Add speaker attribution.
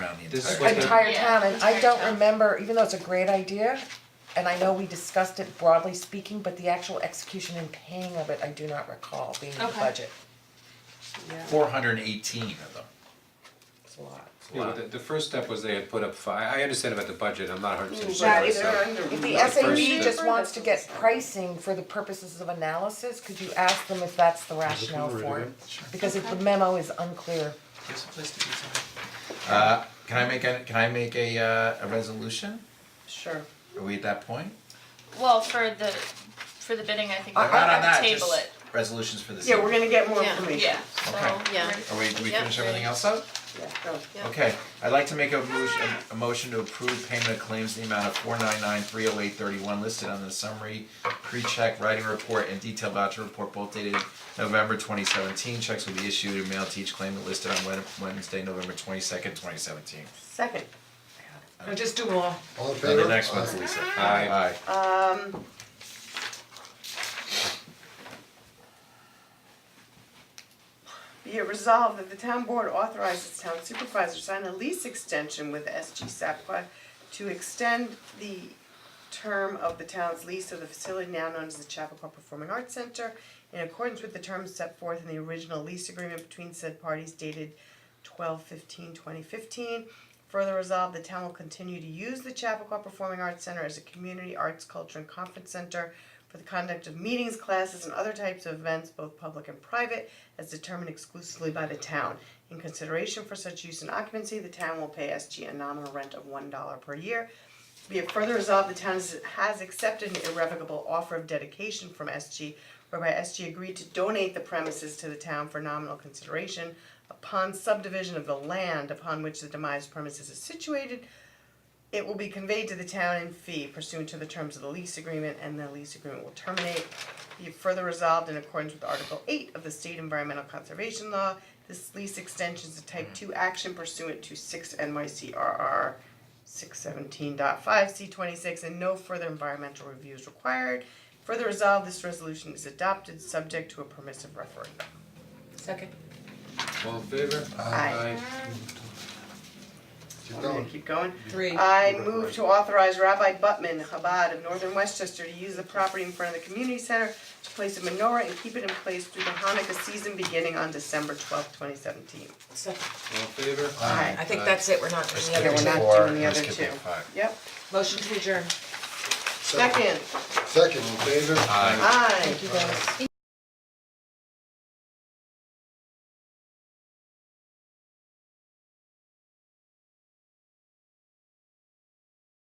Speaker 1: this is what the.
Speaker 2: entire
Speaker 3: Yeah,
Speaker 2: town, and I
Speaker 3: entire
Speaker 2: don't
Speaker 3: town.
Speaker 2: remember, even though it's a great idea, and I know we discussed it broadly speaking, but the actual execution and paying of it, I do not recall being in the
Speaker 3: Okay.
Speaker 2: budget.
Speaker 4: Four hundred and eighteen of them.
Speaker 2: It's a lot.
Speaker 1: Yeah, but the, the first step was they had put up five, I understand about the budget, I'm not hundred percent sure.
Speaker 5: That is
Speaker 1: so-
Speaker 5: under.
Speaker 2: If the
Speaker 1: The first
Speaker 2: SAB
Speaker 1: step.
Speaker 2: just wants to get pricing for the purposes of analysis, could you ask them if that's the rationale for it? Because if the memo is unclear,
Speaker 4: Here's a place to be, Tony. Uh, can I make a, can I make a, uh, a resolution?
Speaker 5: Sure.
Speaker 4: Are we at that point?
Speaker 3: Well, for the, for the bidding, I think
Speaker 4: No,
Speaker 3: we're
Speaker 4: Not on
Speaker 3: gonna
Speaker 4: that,
Speaker 3: table
Speaker 4: just
Speaker 3: it,
Speaker 4: resolutions for this
Speaker 5: Yeah, we're
Speaker 4: evening.
Speaker 5: gonna get more
Speaker 6: Yeah.
Speaker 5: information.
Speaker 3: yeah, so.
Speaker 4: Okay.
Speaker 6: Yeah.
Speaker 3: we're-
Speaker 4: Are we, do we
Speaker 3: Yeah.
Speaker 4: finish everything else up?
Speaker 5: Yeah, go.
Speaker 6: Yeah.
Speaker 4: Okay, I'd like to make a motion, a motion to approve payment of claims in the amount of four nine nine three oh eight thirty-one listed on the summary pre-check writing report and detailed voucher report both dated November twenty seventeen. Checks will be issued and mailed to each claimant listed on Wed- Wednesday, November twenty-second, twenty seventeen.
Speaker 5: Second. No, just do them all.
Speaker 7: All in
Speaker 4: And
Speaker 7: favor?
Speaker 4: the next one's Lisa.
Speaker 1: Aye.
Speaker 4: Aye.
Speaker 5: Um. Be it resolved that the town board authorizes town supervisor to sign a lease extension with SG Sapqua to extend the term of the town's lease of the facility now known as the Chappaqua Performing Arts Center in accordance with the terms set forth in the original lease agreement between said parties dated 2015. Further resolved, the town will continue to use the Chappaqua Performing Arts Center as a community arts, culture, and conference center for the conduct of meetings, classes, and other types of events, both public and private, as determined exclusively by the town. In consideration for such use and occupancy, the town will pay SG a nominal rent of one dollar per year. Be it further resolved, the town has- has accepted an irrevocable offer of dedication from SG whereby SG agreed to donate the premises to the town for nominal consideration upon subdivision of the land upon which the demised premises is situated. It will be conveyed to the town in fee pursuant to the terms of the lease agreement and the lease agreement will terminate. Be it further resolved in accordance with Article eight of the State Environmental Conservation Law, this lease extension is a type two action pursuant to six NYCRR six seventeen dot five C twenty-six, and no further environmental review is required. Further resolved, this resolution is adopted, subject to a permissive referendum.
Speaker 6: Second.
Speaker 1: All in favor?
Speaker 5: Aye.
Speaker 7: Keep
Speaker 5: I'm gonna
Speaker 7: going.
Speaker 5: keep going.
Speaker 6: Three.
Speaker 5: I move to authorize Rabbi Butman Chabad of Northern Westchester to use the property in front of the community center to place a menorah and keep it in place through the Hanukkah season beginning on December twelfth, twenty seventeen.
Speaker 6: Second.
Speaker 1: All in favor?
Speaker 6: I
Speaker 2: Uh,
Speaker 6: think that's it, we're not doing the
Speaker 5: Yeah,
Speaker 6: other
Speaker 5: we're
Speaker 6: one.
Speaker 5: not
Speaker 4: Four,
Speaker 5: doing the
Speaker 4: let's
Speaker 5: other
Speaker 4: get that
Speaker 5: two.
Speaker 4: five.
Speaker 5: Yep,
Speaker 6: Motion to adjourn.
Speaker 5: second,
Speaker 7: Second, in favor?
Speaker 4: Aye.
Speaker 5: aye.
Speaker 2: you guys.